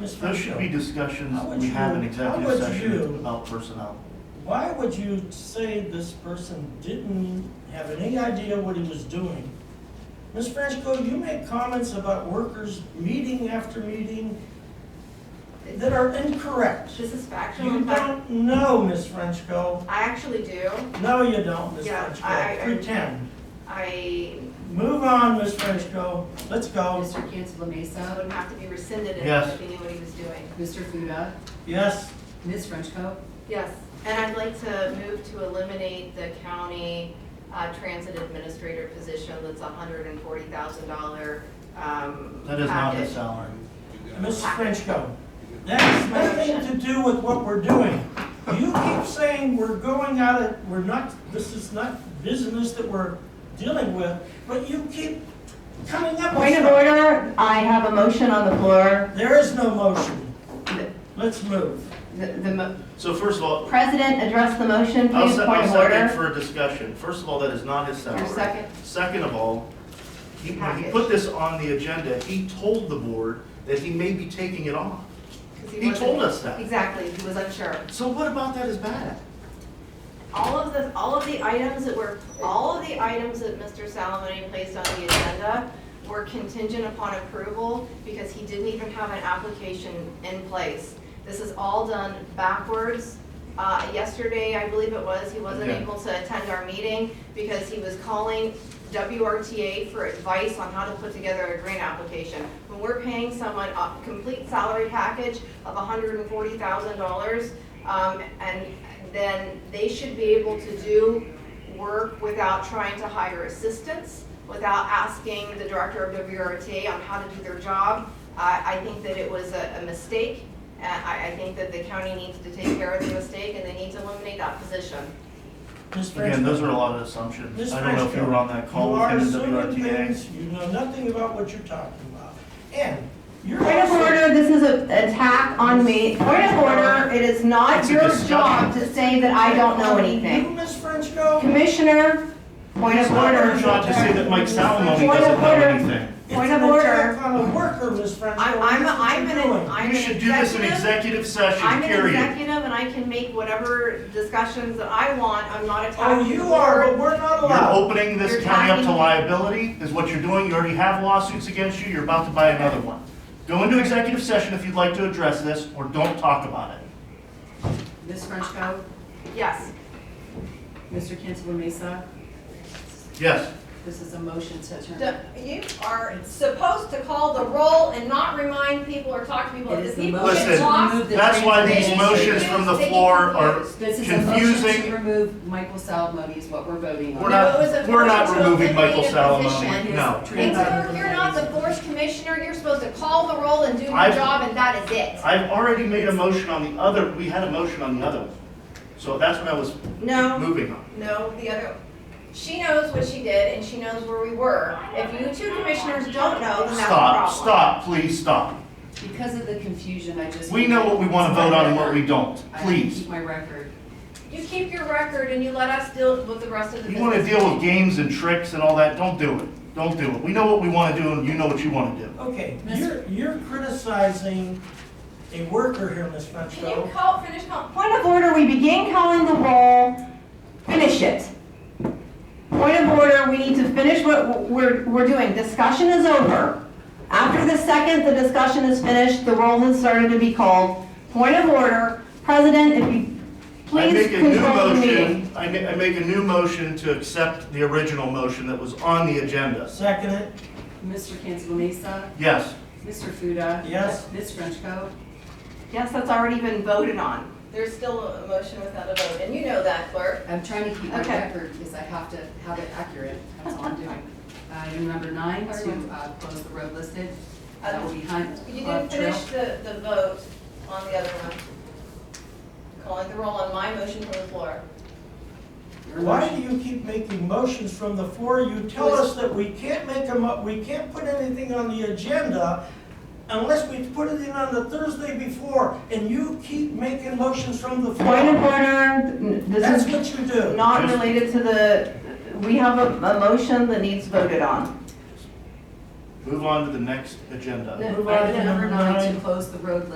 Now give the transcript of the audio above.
Ms. There should be Frenchco. discussions How would we have in you- how executive would session you- about personnel. Why would you say this person didn't have any idea what he was doing? Ms. Frenchco, you make comments about workers meeting after meeting that are incorrect. This is factual. You In fact, don't know, Ms. Frenchco. I actually do. No, you don't, Ms. Yeah, I- Frenchco. I- Pretend. I, Move on, Ms. Frenchco. Let's go. Mr. Cantala that Mesa, would have to be rescinded Yes. if he knew what he was doing. Mr. Fuda, Yes. Ms. Frenchco. Yes, and I'd like to move to eliminate the county uh, transit administrator position that's a hundred and forty thousand dollar um, package. That is not his salary. Ms. Frenchco, that has nothing to do with what we're doing. You keep saying we're going out of, we're not, this is not business that we're dealing with, but you keep coming up with Point of stuff. order, I have a motion on the floor. There is no motion. Let's move. The, the mo- So first of all, president addressed the motion, I'll please, se- point I'll of second order. for a discussion. First of all, that is not his salary. Your second? Second of all, he, when he Package. put this on the agenda, he told the board that he may be taking it off. 'cause He wasn't- told us that. Exactly, he was unsure. So what about that is bad? All of the, all of the items that were, all of the items that Mr. Salamone placed on the agenda were contingent upon approval because he didn't even have an application in place. This is all done backwards. Uh, yesterday, I believe it was, he wasn't Yeah. able to attend our meeting because he was calling WRTA for advice on how to put together a grant application. When we're paying someone a complete salary package of hundred and forty thousand dollars, um, and then they should be able to do work without trying to hire assistants, without asking the director of WRTA on how to do their job. I, I think that it was a, a mistake, and I, I think that the county needs to take care of the mistake, and they need to eliminate that position. Ms. Again, those are a Frenchco. lot of assumptions. Ms. I don't know if you were on that Frenchco, you call with are him in assuming WRTA. things, you know nothing about what you're talking about. And you're. Point of also- order, this is an attack on me. Point of order, it is not It's a your discussion. job to say that I don't know You, anything. Ms. Frenchco, Commissioner, point of It's not order. our job to say that Mike Salamone Point of doesn't know order. anything. it's Point an of order. attack on a worker, Ms. Frenchco. I'm, I'm, I'm That's what an, you're doing. I'm an You should do this in executive session, I'm an period. executive, and I can make whatever discussions that I want, I'm not Oh, attacking the you are, but board. we're not You're allowed. opening You're this county up to talking- liability, is what you're doing. You already have lawsuits against you, you're about to buy another one. Go into executive session if you'd like to address this, or don't talk about it. Ms. Frenchco, Yes. Mr. Cantala Mesa, Yes, this is a motion to adjourn. The- You are supposed to call the roll and not remind people or talk to people. It is the People motion get Listen, to lost. remove the that's why these transportation. motions from the floor are, This is a motion confusing. to remove Michael Salamone is what we're voting we're on. No, it was not, a we're not motion to removing Michael eliminate a Salamone, position. no. And so you're not the board commissioner, you're supposed to call the roll and do your I've- job, and that is it. I've already made a motion on the other, we had a motion on the other one. So that's what I was No, moving on. no, the other, She knows what she did, and she knows where we were. If you two commissioners don't know, then that's a problem. Stop, stop, please stop. Because of the confusion, I just. We know what we want to vote on and what we don't, I will please. keep my record. You keep your record and you let us deal with the rest of the You business. want to deal with games and tricks and all that, don't do it. Don't do it. We know what we want to do and you know what you want to do. Okay, Miss- you're, you're criticizing a worker here, Ms. Can Frenchco. you call, finish calling? Point of order, we begin calling the roll, finish it. Point of order, we need to finish what we're, we're doing. Discussion is over. After the second, the discussion is finished, the roll has started to be called. Point of order, President, if you I please make a new control the meeting. motion. I ma- I make a new motion to accept the original motion that was on the agenda. Second it, Mr. Cantala Mesa, Yes, Mr. Fuda. Yes. Ms. Frenchco. yes, that's already been voted on. There's still a motion without a vote, and you know that, clerk. I'm trying to keep my Okay. record because I have to have it accurate. That's all I'm doing. Uh, Item number nine, to uh, close the road listed. That will be Hunt You Club didn't Trail. finish the, the vote on the other one. Calling the roll on my motion from the floor. Your why motion. do you keep making motions from the floor? You tell us that we can't make a mo we can't put anything on the agenda unless we put it in on the Thursday before, and you keep making motions from the Point of floor. order, That's this what you is do. not related to the, we have a, a motion that needs voted on. move on to the next agenda. Move on to Item number number nine, nine. to close the road